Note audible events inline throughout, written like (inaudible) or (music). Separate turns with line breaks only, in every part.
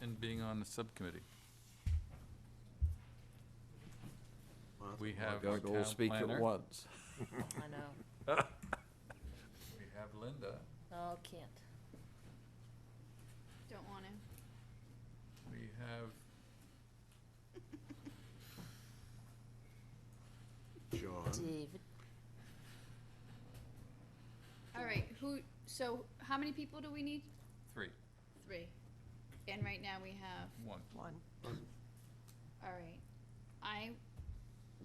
and being on the subcommittee. We have our
(laughs) Gotta go
town
speak at
planner.
once.
I know.
We have Linda.
No, can't.
Don't want to.
We have
John,
David,
All right, who, so how many people do we need?
three,
Three. And right now we have,
(laughs)
one.
One.
all right. I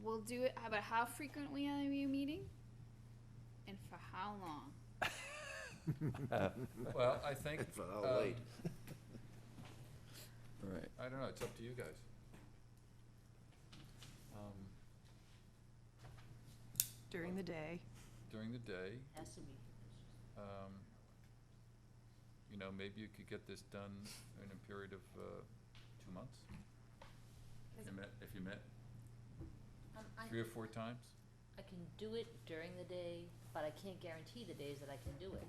will do it, how about how frequently are you meeting? And for how long?
Uh,
Well, I think,
for how
(laughs)
late?
um,
Right.
I don't know, it's up to you guys. Um,
During the day.
During the day,
has to be.
um, you know, maybe you could get this done in a period of, uh, two months? If you met, if you met
Um, I,
three or four times?
I can do it during the day, but I can't guarantee the days that I can do it,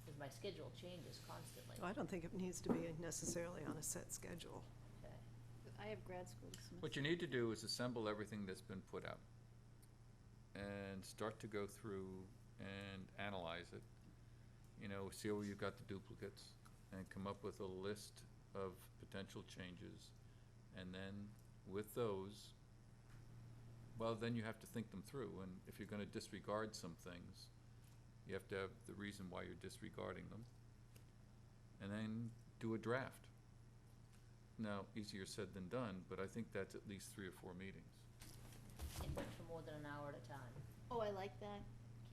because my schedule changes constantly.
I don't think it needs to be necessarily on a set schedule.
Okay.
I have grad school this semester.
What you need to do is assemble everything that's been put out and start to go through and analyze it. You know, see where you've got the duplicates and come up with a list of potential changes. And then with those, well, then you have to think them through. And if you're gonna disregard some things, you have to have the reason why you're disregarding them. And then do a draft. Now, easier said than done, but I think that's at least three or four meetings.
Can't do it for more than an hour at a time.
Oh, I like that.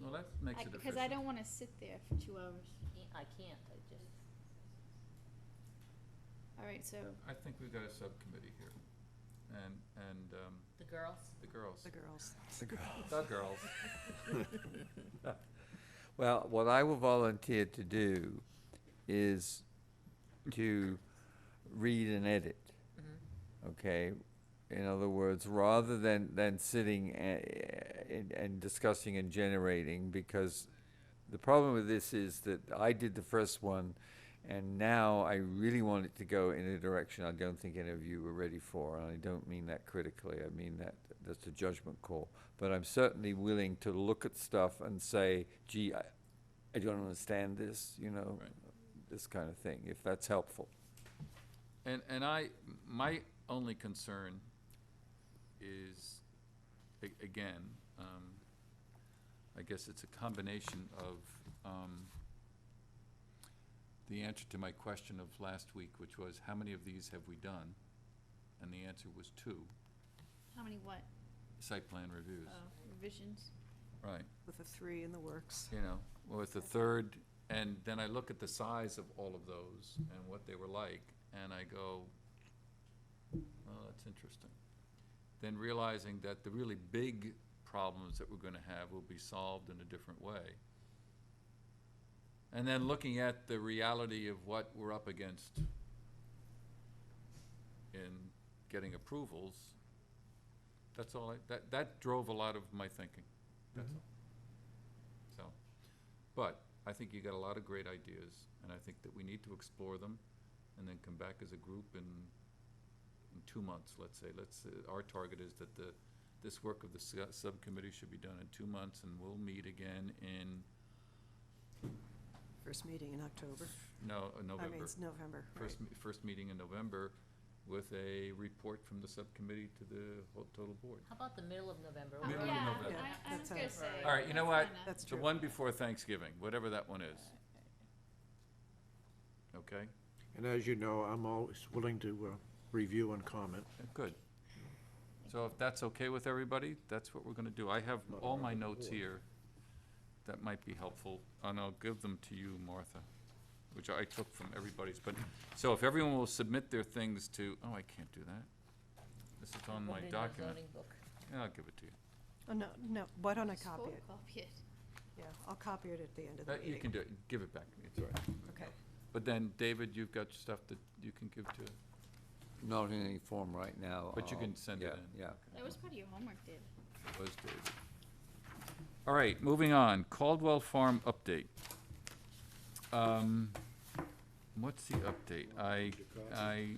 Well, that makes
I-
it efficient.
Because I don't want to sit there for two hours.
Can't- I can't, I just,
All right, so,
I think we've got a subcommittee here, and, and, um,
the girls,
the girls,
The girls. (laughs)
the girls.
(laughs) Well, what I will volunteer to do is to read and edit.
Mm-hmm.
Okay? In other words, rather than, than sitting a- and, and discussing and generating, because the problem with this is that I did the first one, and now I really want it to go in a direction I don't think any of you were ready for, and I don't mean that critically, I mean that, that's a judgment call. But I'm certainly willing to look at stuff and say, gee, I, I don't understand this, you know,
Right.
this kind of thing, if that's helpful.
And, and I, my only concern is, a- again, um, I guess it's a combination of, um, the answer to my question of last week, which was, how many of these have we done? And the answer was two,
how many what?
site plan reviews,
Oh, revisions?
right.
With the three in the works.
you know, with the third, and then I look at the size of all of those and what they were like, and I go, oh, that's interesting. Then realizing that the really big problems that we're gonna have will be solved in a different way. And then looking at the reality of what we're up against in getting approvals, that's all I, that, that drove a lot of my thinking, that's all. So, but I think you got a lot of great ideas, and I think that we need to explore them, and then come back as a group in, in two months, let's say. Let's, uh, our target is that the, this work of the su- subcommittee should be done in two months, and we'll meet again in,
First meeting in October.
no, uh,
I mean,
November.
it's November, right.
First, me- first meeting in November with a report from the subcommittee to the whole total board.
how about the middle of November?
Oh,
Middle of
Yeah,
November.
I, I was
That
gonna
sounds-
say.
All right, you know
that's
what?
fine, uh,
That's
The
true. Uh,
one before Thanksgiving, whatever that one is. Okay,
And as you know, I'm always willing to uh, review and comment.
good. So if that's okay with everybody, that's what we're gonna do. I have all my notes here that might be helpful, and I'll give them to you, Martha, which I took from everybody's, but, so if everyone will submit their things to, oh, I can't do that. This is on
Put
my
it in our
document.
zoning book.
Yeah, I'll give it to you.
Oh, no, no, why don't I
just
copy it?
photocopy it.
Yeah, I'll copy it at the end of the
That-
meeting.
Uh, You can do it, give it back to me, it's all right.
Okay.
But then, David, you've got stuff that you can give to,
Not in any form right now.
But you can
I'll-
send it
yeah,
in.
Yeah.
That was part of your homework, David.
was David. All right, moving on, Caldwell Farm update. Um, What's the update? I, I,